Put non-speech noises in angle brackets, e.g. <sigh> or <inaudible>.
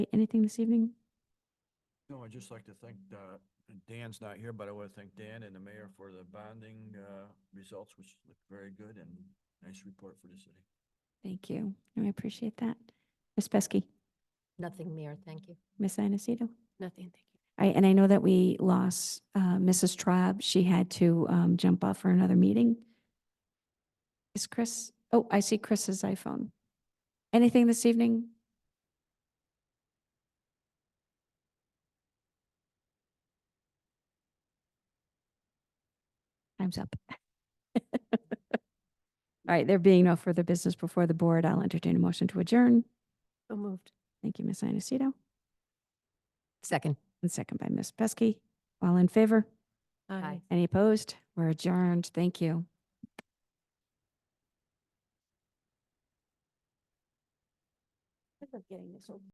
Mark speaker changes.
Speaker 1: Anything this evening?
Speaker 2: No, I'd just like to thank, uh, Dan's not here, but I want to thank Dan and the mayor for the bonding, uh, results, which look very good and nice report for the city.
Speaker 1: Thank you. No, I appreciate that. Ms. Pesky,
Speaker 3: Nothing, Mayor, thank you.
Speaker 1: Ms. Anacito?
Speaker 3: Nothing, thank you.
Speaker 1: I, and I know that we lost, uh, Mrs. Traub. She had to, um, jump off for another meeting. Is Chris, oh, I see Chris's iPhone. Anything this evening? Time's up. <laughs> All right, there being no further business before the board, I'll entertain a motion to adjourn.
Speaker 3: So moved.
Speaker 1: Thank you, Ms. Inacito,
Speaker 3: Second.
Speaker 1: and second by Ms. Pesky. All in favor?
Speaker 3: Aye.
Speaker 1: Any opposed? We're adjourned. Thank you.